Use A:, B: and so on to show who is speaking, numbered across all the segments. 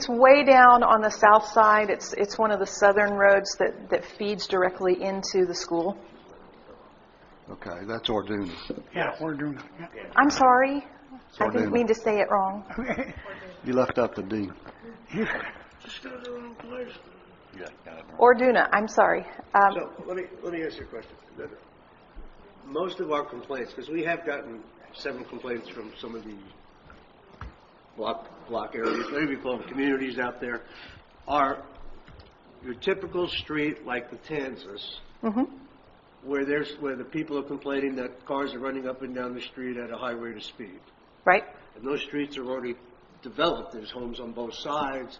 A: It's way down on the south side. It's, it's one of the southern roads that, that feeds directly into the school.
B: Okay, that's Orduna.
C: Yeah, we're doing it, yeah.
A: I'm sorry. I
B: Orduna.
A: didn't mean to say it wrong.
B: You left out the D.
C: Just go to the wrong place.
A: Orduna, I'm sorry. Um,
D: So, let me, let me ask you a question. Most of our complaints, because we have gotten several complaints from some of the block, block areas, maybe we call them communities out there, are your typical street like the Tanzas, where there's, where the people are complaining that cars are running up and down the street at a high rate of speed.
A: right?
D: And those streets are already developed, there's homes on both sides,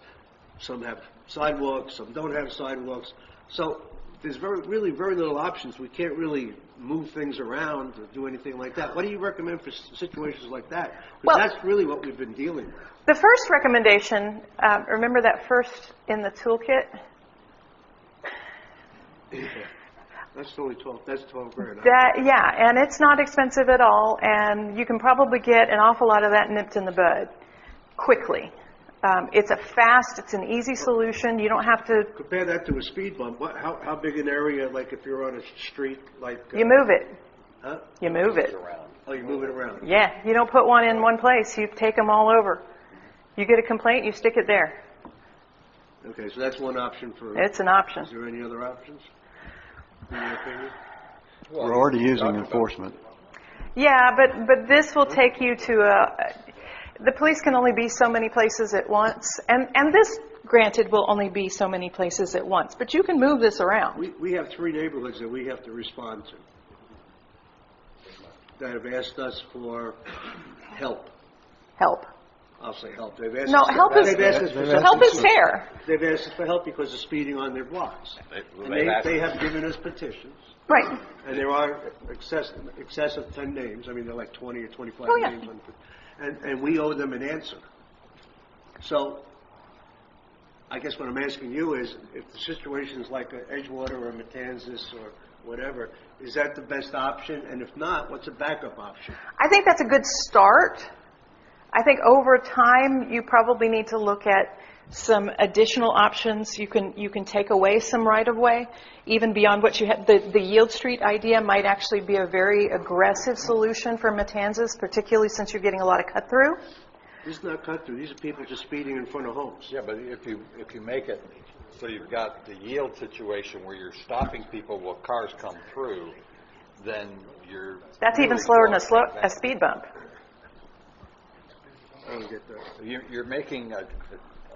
D: some have sidewalks, some don't have sidewalks. So there's very, really very little options, we can't really move things around or do anything like that. What do you recommend for s- situations like that?
A: Well-
D: Because that's really what we've been dealing with.
A: The first recommendation, um, remember that first in the toolkit?
D: That's only 12, that's 12 grand.
A: That, yeah, and it's not expensive at all, and you can probably get an awful lot of that nipped in the bud quickly. Um, it's a fast, it's an easy solution. You don't have to,
D: Compare that to a speed bump, what, how, how big an area, like if you're on a street like, uh,
A: you move it.
D: huh?
A: You move it.
D: Oh, you move it around.
A: Yeah, you don't put one in one place, you take them all over. You get a complaint, you stick it there.
D: Okay, so that's one option for, is
A: It's an option.
D: there any other options? In your opinion?
B: We're already using enforcement.
A: Yeah, but, but this will take you to a, the police can only be so many places at once, and, and this, granted, will only be so many places at once, but you can move this around.
D: We, we have three neighborhoods that we have to respond to that have asked us for help.
A: Help.
D: I'll say help. They've asked
A: No,
D: us
A: help is,
D: They've asked us for
A: help is fair,
D: They've asked us for help because of speeding on their blocks. And they, they have given us petitions,
A: right.
D: and there are excess, excess of 10 names. I mean, they're like 20 or 25
A: Oh, yeah.
D: names. on And, and we owe them an answer. So I guess what I'm asking you is, if the situation's like a Edgewater or a Matanzas or whatever, is that the best option? And if not, what's a backup option?
A: I think that's a good start. I think over time, you probably need to look at some additional options. You can, you can take away some right-of-way, even beyond what you had. The, the yield street idea might actually be a very aggressive solution for Matanzas, particularly since you're getting a lot of cut-through.
D: This is not cut through. These are people just speeding in front of homes.
E: Yeah, but if you, if you make it, so you've got the yield situation where you're stopping people while cars come through, then you're.
A: That's even
E: really
A: slower than a slow,
E: blocking
A: a
E: that.
A: speed bump.
D: I don't get that.
E: You're, you're making a,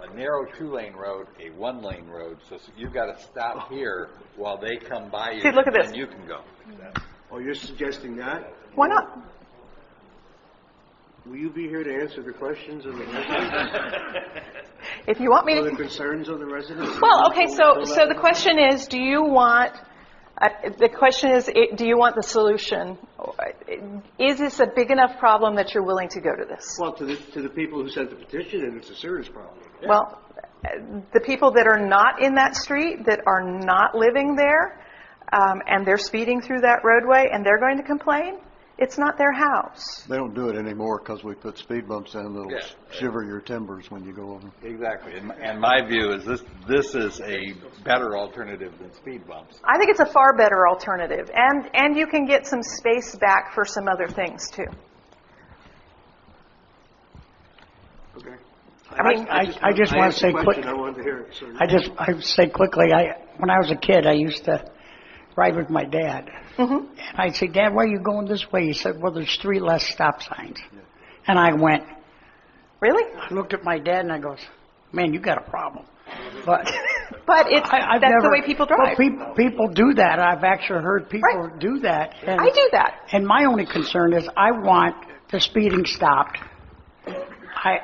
E: a narrow two-lane road a one-lane road, so you've got to stop here while they come by you.
A: See, look at this.
E: And you can go.
D: Oh, you're suggesting that?
A: Why not?
D: Will you be here to answer the questions of the residents,
A: If you want me to...
D: or the concerns of the residents?
A: Well, okay,
D: Before
A: so,
D: we fill
A: so
D: out
A: the question is, do you want, uh, the question is, i- do you want the solution? Is this a big enough problem that you're willing to go to this?
D: Well, to the, to the people who sent the petition, and it's a serious problem.
A: Well, uh, the people that are not in that street, that are not living there, um, and they're speeding through that roadway, and they're going to complain, it's not their house.
B: They don't do it anymore because we put speed bumps in that'll
E: Yeah.
B: shiver your timbers when you go over.
E: Exactly. And, and my view is this, this is a better alternative than speed bumps.
A: I think it's a far better alternative, and, and you can get some space back for some other things, too.
D: Okay.
A: mean,
C: I- I just wanna
D: asked
C: say
D: a question,
C: quick-
D: I wanted to hear it, so.
C: I just, I say quickly, I, when I was a kid, I used to ride with my dad.
A: Mm-hmm.
C: And I'd say, Dad, why are you going this way? He said, well, there's three less stop signs. And I went,
A: Really?
C: I looked at my dad and I goes, man, you got a problem. But
A: But it's,
C: I, I've
A: that's the
C: never-
A: way people
C: Well,
A: drive.
C: peop- people do that. I've actually heard people
A: Right.
C: do that. and-
A: I do that.
C: And my only concern is I want the speeding stopped. I,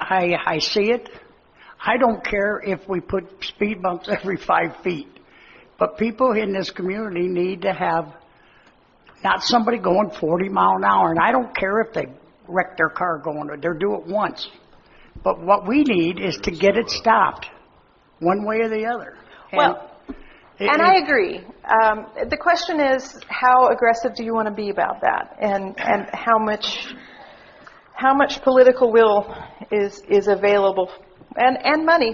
C: I, I see it. I don't care if we put speed bumps every five feet. But people in this community need to have, not somebody going 40 mile an hour. And I don't care if they wreck their car going, they're do it once. But what we need is to get it stopped, one way or the other. And
A: Well,
C: it-
A: And I
C: it-
A: agree. Um, the question is, how aggressive do you want to be about that, and and how much, how much political will is is available, and and money